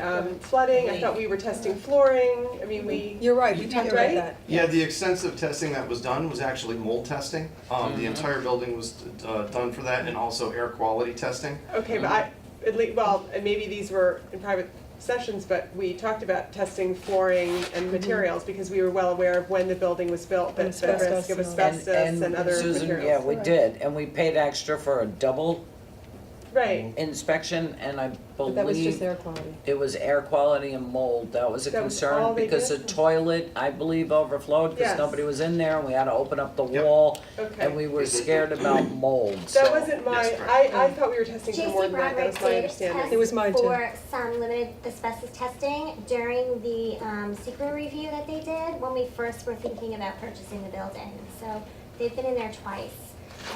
um, flooding, I thought we were testing flooring, I mean, we. You're right, we talked about Right? that. Yeah, the extensive testing that was done was actually mold testing. Um, the entire building was, uh, done for that and also air quality testing. Okay, but I, at least, well, and maybe these were in private sessions, but we talked about testing flooring and Mm-hmm. materials because we were well aware of when the building was built, that the risk Asbestos of and- asbestos and other materials. Susan, yeah, we did, and we paid extra for a double Mm-hmm. Right, inspection, and I But that was just believe air quality. it was air quality and mold, that was a That was all concern, they because the did? toilet, I believe, overflowed, Yes. because nobody was in there, and we had to open up the Yep. wall, Okay. and we were scared about mold, so. that wasn't my, Yes, correct. I, I thought we were testing for more JC than that, that Broderick was my did understanding. It was mine test too. for some limited asbestos testing during the um, secret review that they did when we first were thinking about purchasing the building. So they've been in there twice,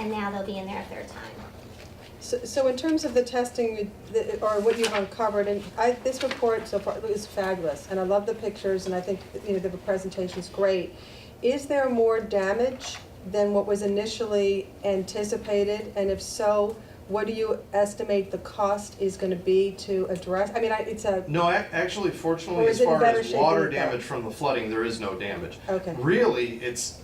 and now they'll be in there a third time. So, so in terms of the testing, the- or what you've uncovered, and I, this report so far is fabulous, and I love the pictures, and I think, you know, the presentation's great. Is there more damage than what was initially anticipated, and if so, what do you estimate the cost is gonna be to address? I mean, I, it's a, No, ac- actually, Or fortunately, is as it in far better as shape water than it was? damage from the flooding, there is no damage. Okay. Really, it's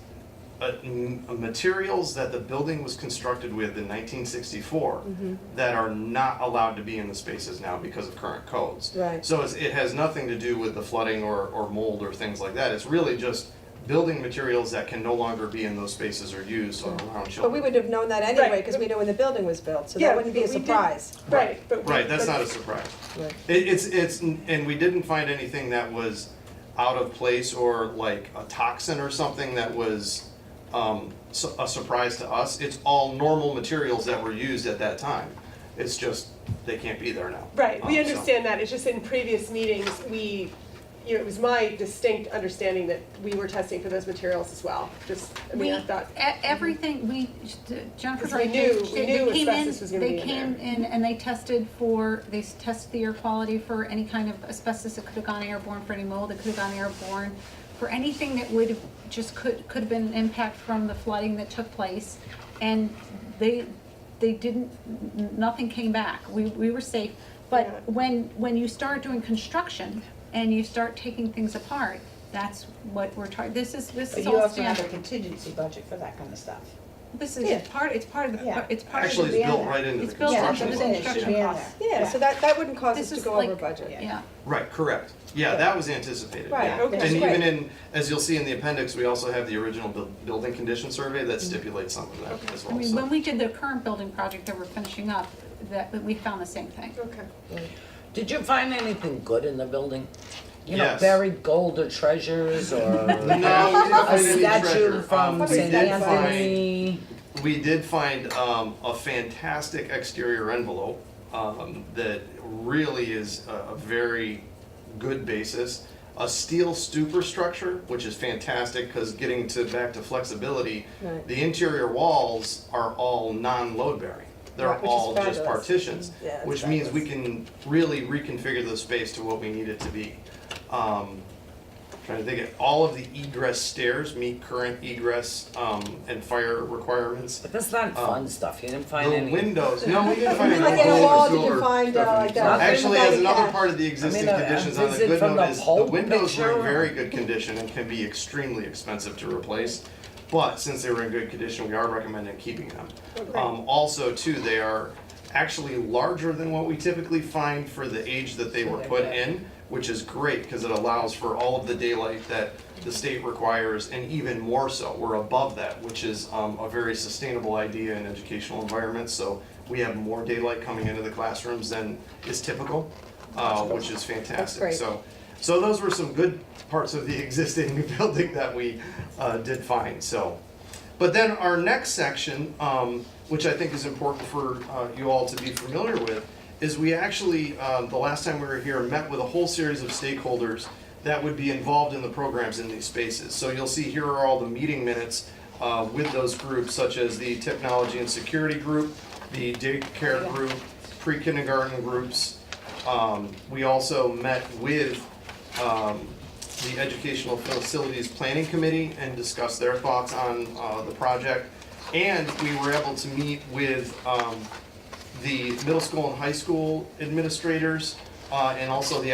uh, m- materials that the building was constructed with in 1964 Mm-hmm. that are not allowed to be in the spaces now because of current codes. Right. So it's, it has nothing to do with the flooding or, or mold or things like that. It's really just building materials that can no longer be in those spaces or used or around children. but we would have known that anyway, Right. because we knew when the building was built, so Yeah, that wouldn't be a but we did- surprise. Right, but. we- Right, that's but- not a surprise. Right. It, it's, it's, and we didn't find anything that was out of place or like a toxin or something that was, um, su- a surprise to us. It's all normal materials that were used at that time. It's just, they can't be there now. Right, we Um, so- understand that, it's just in previous meetings, we, you know, it was my distinct understanding that we were testing for those materials as well, just, I mean, I thought. mm-hmm. We, e- everything, we, Jennifer's we right, they, knew- we they- knew they came in, asbestos was gonna be they in came in and they tested for, they s- tested the air quality for any kind of asbestos that could have gone airborne, for any mold that could have gone airborne, for anything that would, have just could, could have been an impact from the flooding that took place. And they, they didn't, n- nothing came back, we, we were safe. Yeah. But when, when you start doing construction and you start taking things apart, that's what we're trying, this is, this But is you all also have standard. a contingency budget for that kind of stuff. This is part, it's part of the, Yeah. it's part of Actually, the. it's built Yeah. right into It's the built into construction. the loan. It should be construction in cost. there. Yeah, so that, that wouldn't cause us This to is go over like- budget. Yeah, Right, correct. Yeah, that was anticipated. Right, yeah. okay, And great. even in, as you'll see in the appendix, we also have the original buil- building condition survey Mm-hmm. that stipulates some of that as I well, mean, so. when we did the current building project that we're finishing up, that, that we found the same thing. Okay. Did you find anything good in the building? You know, Yes. buried gold or treasures, or No, we didn't a find any statue treasure. Um, from we St. did Anthony? We did find um, a fantastic exterior envelope um, that really is a, a very good basis. A steel stupor structure, which is fantastic because getting to back to flexibility, Right. the interior walls are all non-load bearing. They're Right, which is all just fabulous. partitions, Yeah, it's which means we can really reconfigure the space to what we need it to be. Um, Trying to think, of- all of the egress stairs meet current egress um, and fire requirements. But that's not fun stuff, you didn't find Um, The any. windows, no, we didn't I find mean, any. like in a windows wall, or did you door. find, uh, like that? Actually, as another Yeah. part of the existing I mean, a- a conditions on the visit good from the note is, the Pope windows were in picture? very good condition and can be extremely expensive to replace. But since they were in good condition, we are recommending keeping them. Um, also too, they are actually larger than what we typically find for the age that they were put in, which is great, cause it allows for all of the daylight that the state requires and even more so, we're above that, which is, um, a very sustainable idea in educational environments, so we have more daylight coming into the classrooms than is typical, uh, which is fantastic, great. so. So those were some good parts of the existing building that we, uh, did find, so. But then our next section, um, which I think is important for uh, you all to be familiar with, is we actually, um, the last time we were here, met with a whole series of stakeholders that would be involved in the programs in these spaces. So you'll see here are all the meeting minutes uh, with those groups, such as the technology and security group, the daycare group, pre-kindergarten groups. Um, We also met with um, the Educational Facilities Planning Committee and discuss their thoughts on uh, the project. And we were able to meet with um, the middle school and high school administrators uh, and also the